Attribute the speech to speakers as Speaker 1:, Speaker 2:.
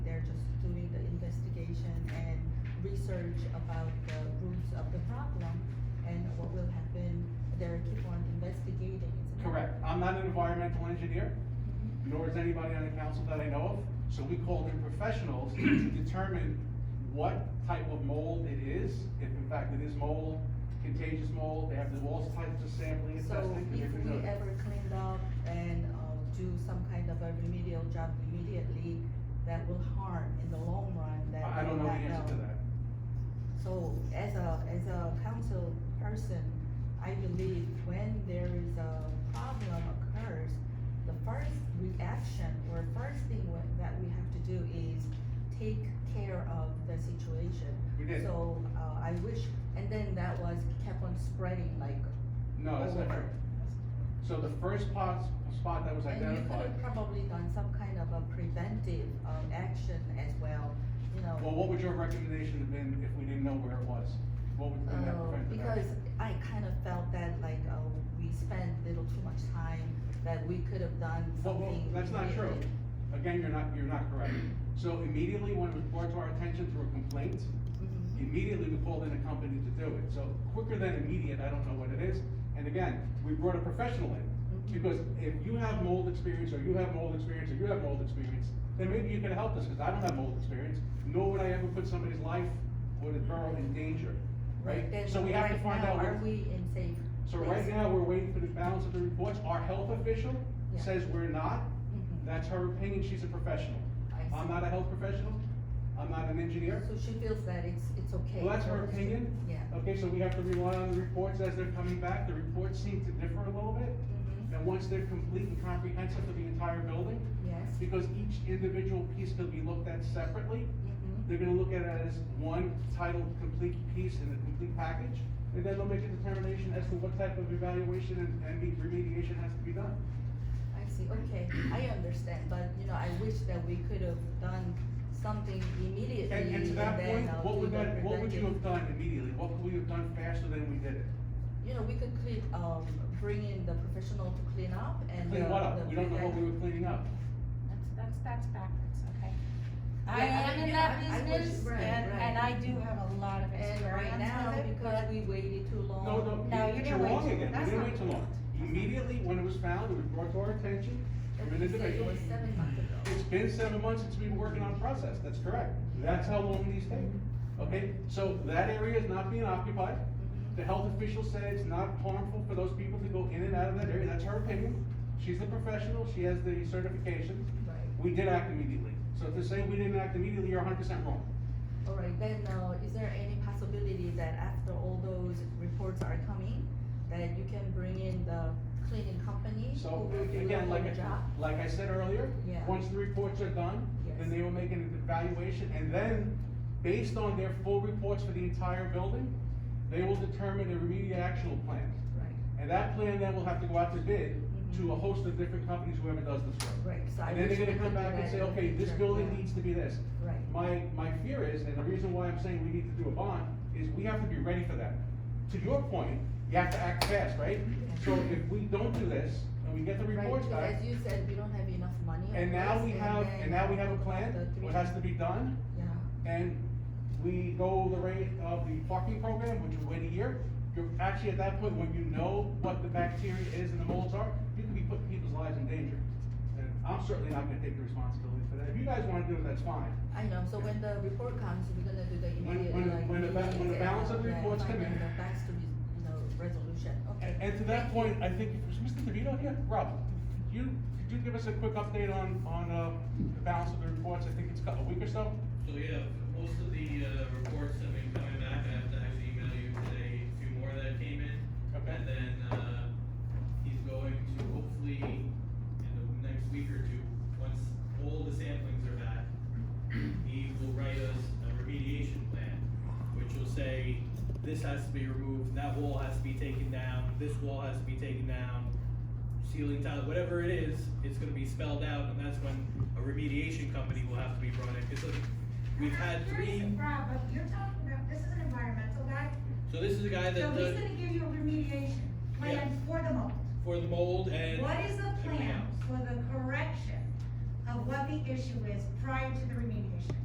Speaker 1: research about the roots of the problem and what will happen, they're keep on investigating. isn't it?
Speaker 2: Correct. I'm not an environmental engineer, nor is anybody on the council that I know of, so we called in professionals to determine what type of mold it is, if in fact it is mold, contagious mold, they have to do all types of sampling and
Speaker 1: So
Speaker 2: testing. that
Speaker 1: if
Speaker 2: they can
Speaker 1: we
Speaker 2: do.
Speaker 1: ever cleaned up and, uh, do some kind of a remedial job immediately, that will harm in the long run that
Speaker 2: I I don't
Speaker 1: we
Speaker 2: know the
Speaker 1: not
Speaker 2: answer
Speaker 1: know.
Speaker 2: to that.
Speaker 1: So as a, as a council person, I believe when there is a problem occurs, the first reaction or first thing wha- that we have to do is take care of the situation.
Speaker 2: We did.
Speaker 1: So, uh, I wish, and then that was kept on spreading like.
Speaker 2: No, that's not
Speaker 1: over.
Speaker 2: true. So the first spot, spot that was
Speaker 1: And you could
Speaker 2: identified,
Speaker 1: have probably done some kind of a preventive, um, action as well, you know.
Speaker 2: well, what would your recommendation have been if we didn't know where it was? What would have been that
Speaker 1: Uh,
Speaker 2: preventive
Speaker 1: because
Speaker 2: action?
Speaker 1: I kind of felt that like, oh, we spent little too much time, that we could have done
Speaker 2: Well, well,
Speaker 1: something.
Speaker 2: that's not true.
Speaker 1: immediately.
Speaker 2: Again, you're not, you're not correct. So immediately when it was brought to our attention through a complaint,
Speaker 1: Mhm.
Speaker 2: immediately we called in a company to do it. So quicker than immediate, I don't know what it is. And again, we brought a professional in.
Speaker 1: Mhm.
Speaker 2: Because if you have mold experience, or you have mold experience, or you have mold experience, then maybe you can help us, because I don't have mold experience, nor would I ever put somebody's life or the borough in danger, right?
Speaker 1: Then
Speaker 2: So we have to
Speaker 1: right
Speaker 2: find
Speaker 1: now,
Speaker 2: out. what-
Speaker 1: Are we in safe?
Speaker 2: So right
Speaker 1: place?
Speaker 2: now, we're waiting for the balance of the reports. Our health official
Speaker 1: Yeah.
Speaker 2: says we're not,
Speaker 1: Mhm.
Speaker 2: that's her opinion, she's a professional.
Speaker 1: I see.
Speaker 2: I'm not a health professional, I'm not an engineer.
Speaker 1: So she feels that it's, it's okay.
Speaker 2: Well, that's
Speaker 1: for
Speaker 2: her
Speaker 1: us to-
Speaker 2: opinion. Uh,
Speaker 1: Yeah.
Speaker 2: Okay, so we have to rely on the reports as they're coming back, the reports seem to differ a little bit.
Speaker 1: Mhm.
Speaker 2: And once they're complete and comprehensive for the entire building,
Speaker 1: Yes.
Speaker 2: because each individual piece could be looked at separately,
Speaker 1: Mhm.
Speaker 2: they're gonna look at it as one titled complete piece in the complete package, and then they'll make a determination as to what type of evaluation and, and remediation has to be done.
Speaker 1: I see, okay, I understand, but you know, I wish that we could have done something immediately
Speaker 2: And, and to
Speaker 1: and
Speaker 2: that
Speaker 1: then,
Speaker 2: point,
Speaker 1: uh,
Speaker 2: what
Speaker 1: do
Speaker 2: would
Speaker 1: the
Speaker 2: that, what would you
Speaker 1: preventive.
Speaker 2: have done immediately? What could we have done faster than we did it?
Speaker 1: you know, we could clean, um, bring in the professional to clean up and.
Speaker 2: Clean
Speaker 1: uh,
Speaker 2: what up?
Speaker 1: the
Speaker 2: We don't know what we
Speaker 1: prevent-
Speaker 2: were cleaning up.
Speaker 3: That's, that's, that's backwards, okay?
Speaker 1: Yeah,
Speaker 3: I
Speaker 1: I
Speaker 3: am
Speaker 1: mean,
Speaker 3: in
Speaker 1: yeah,
Speaker 3: that
Speaker 1: I- I wish-
Speaker 3: business,
Speaker 1: right,
Speaker 3: and,
Speaker 1: right.
Speaker 3: and I do have a lot of
Speaker 1: And right now,
Speaker 3: experience with
Speaker 1: because
Speaker 3: it,
Speaker 1: we waited too long.
Speaker 2: No, no,
Speaker 3: No,
Speaker 2: you-
Speaker 3: you
Speaker 2: you're
Speaker 3: didn't wait
Speaker 2: wrong
Speaker 3: too-
Speaker 2: again, we
Speaker 3: that's
Speaker 2: didn't
Speaker 3: not-
Speaker 2: wait too long. Immediately, when it was found, it was brought to our attention, from an
Speaker 1: You said it
Speaker 2: individual.
Speaker 1: was seven months ago.
Speaker 2: It's been seven months since we've been working on a process, that's correct. That's how long these
Speaker 1: Mm-hmm.
Speaker 2: take, okay? So that area is not being occupied. The health official said it's not harmful for those people to go in and out of that area, that's her opinion. She's the professional, she has the certifications.
Speaker 1: Right,
Speaker 2: We did act immediately. So to say we didn't act immediately, you're hundred percent wrong.
Speaker 1: all right, then, uh, is there any possibility that after all those reports are coming, that you can bring in the cleaning company?
Speaker 2: So,
Speaker 1: who will do the
Speaker 2: again, like,
Speaker 1: whole job?
Speaker 2: I- like I said earlier,
Speaker 1: Yeah.
Speaker 2: once the reports are done,
Speaker 1: Yes.
Speaker 2: then they will make an evaluation, and then, based on their full reports for the entire building, they will determine a remedial action plan.
Speaker 1: Right,
Speaker 2: And that plan then will have to go out to bid to a
Speaker 1: Mhm.
Speaker 2: host of different companies, whoever does this work.
Speaker 1: right, so I
Speaker 2: And
Speaker 1: wish.
Speaker 2: then they're
Speaker 1: we
Speaker 2: gonna
Speaker 1: could
Speaker 2: come
Speaker 1: do
Speaker 2: back and
Speaker 1: that
Speaker 2: say,
Speaker 1: in the
Speaker 2: okay, this
Speaker 1: future,
Speaker 2: building
Speaker 1: yeah.
Speaker 2: needs to be this.
Speaker 1: Right.
Speaker 2: My, my fear is, and the reason why I'm saying we need to do a bond, is we have to be ready for that. To your point, you have to act fast, right? So if we don't do this, and we get the
Speaker 1: Right,
Speaker 2: reports
Speaker 1: because
Speaker 2: back,
Speaker 1: As you said, we don't have enough money. of
Speaker 2: and now
Speaker 1: course,
Speaker 2: we have,
Speaker 1: then
Speaker 2: and now we have a
Speaker 1: the
Speaker 2: plan,
Speaker 1: three-
Speaker 2: what has to be done,
Speaker 1: Yeah.
Speaker 2: and we go the rate of the parking program, which we wait a year, you're actually at that point, when you know what the bacteria is and the molds are, you can be putting people's lives in danger. And I'm certainly not gonna take the responsibility for that. If you guys wanna do it, that's fine.
Speaker 1: I know, so when the report comes, we're gonna do the
Speaker 2: When-
Speaker 1: immediate,
Speaker 2: when-
Speaker 1: like.
Speaker 2: when the ba- when the
Speaker 1: meetings
Speaker 2: balance
Speaker 1: and,
Speaker 2: of
Speaker 1: uh, yeah,
Speaker 2: reports come in.
Speaker 1: finding the facts to be, you know, resolution, okay.
Speaker 2: And, and to that point, I think, was Mr. DeVito here? Rob, could you, could you give us a quick update on, on, uh, the balance of the reports? I think it's got a week or so?
Speaker 4: So yeah, most of the uh, reports have been coming back, I have to actually email you today, a few more that came in.
Speaker 2: Okay.
Speaker 4: And then, uh, he's going to hopefully, in the next week or two, once all the samplings are back, he will write us a remediation plan, which will say, this has to be removed, that wall has to be taken down, this wall has to be taken down, ceiling tile, whatever it is, it's gonna be spelled out, and that's when a remediation company will have to be brought in, because we've had three,
Speaker 5: Rob, but you're talking about, this is an environmental guy,
Speaker 4: so this is a guy
Speaker 5: so
Speaker 4: that
Speaker 5: he's
Speaker 4: does,
Speaker 5: gonna give you a remediation
Speaker 4: Yeah.
Speaker 5: plan for the mold.
Speaker 4: for the mold and
Speaker 5: What is the
Speaker 4: everything
Speaker 5: plan
Speaker 4: else.
Speaker 5: for the correction of what the issue is prior to the remediation?